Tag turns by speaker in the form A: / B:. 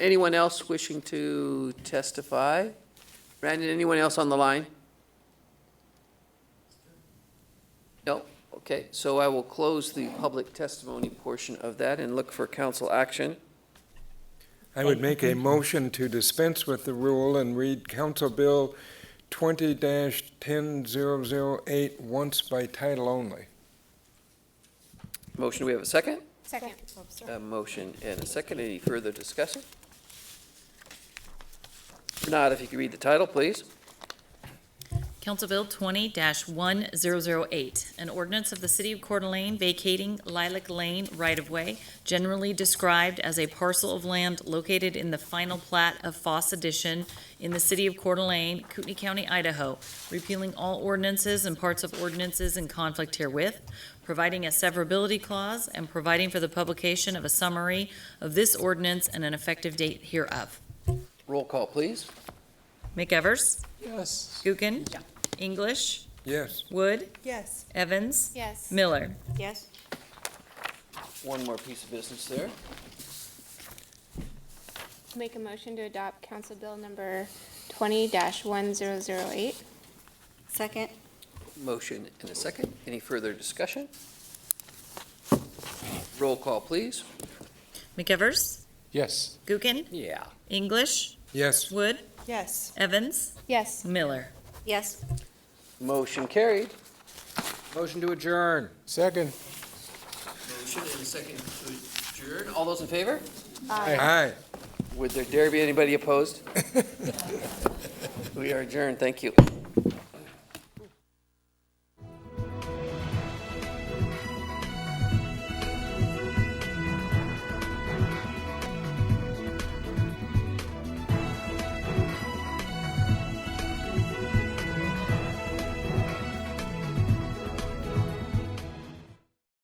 A: Anyone else wishing to testify? Brandon, anyone else on the line? No? Okay, so I will close the public testimony portion of that and look for council action.
B: I would make a motion to dispense with the rule and read Council Bill twenty ten zero zero eight once by title only.
A: Motion, we have a second?
C: Second.
A: A motion and a second. Any further discussion? If Not if you could read the title, please.
D: Council Bill twenty one zero zero eight, an ordinance of the city of Coeur d'Alene vacating Lilac Lane right-of-way, generally described as a parcel of land located in the final plat of Foss Edition in the city of Coeur d'Alene, Kootenai County, Idaho, repealing all ordinances and parts of ordinances in conflict herewith, providing a severability clause, and providing for the publication of a summary of this ordinance and an effective date hereof.
A: Roll call, please.
D: McEvers?
A: Yes.
D: Gookin? English?
B: Yes,
D: Wood?
C: Yes.
D: Evans?
C: Yes.
D: Miller?
C: Yes.
A: One more piece of business there.
E: Make a motion to adopt Council Bill number twenty one zero zero eight.
C: Second.
A: Motion and a second. Any further discussion? Roll call, please.
D: McEvers? Yes. Gookin?
A: Yeah.
D: English?
B: yes,
D: Wood?
C: Yes.
D: Evans?
E: Yes.
D: Miller?
C: Yes.
A: Motion carried.
F: Motion to adjourn.
B: second.
A: Motion and a second to adjourn. All those in favor?
B: Aye.
A: Would there dare be anybody opposed? We are adjourned. Thank you.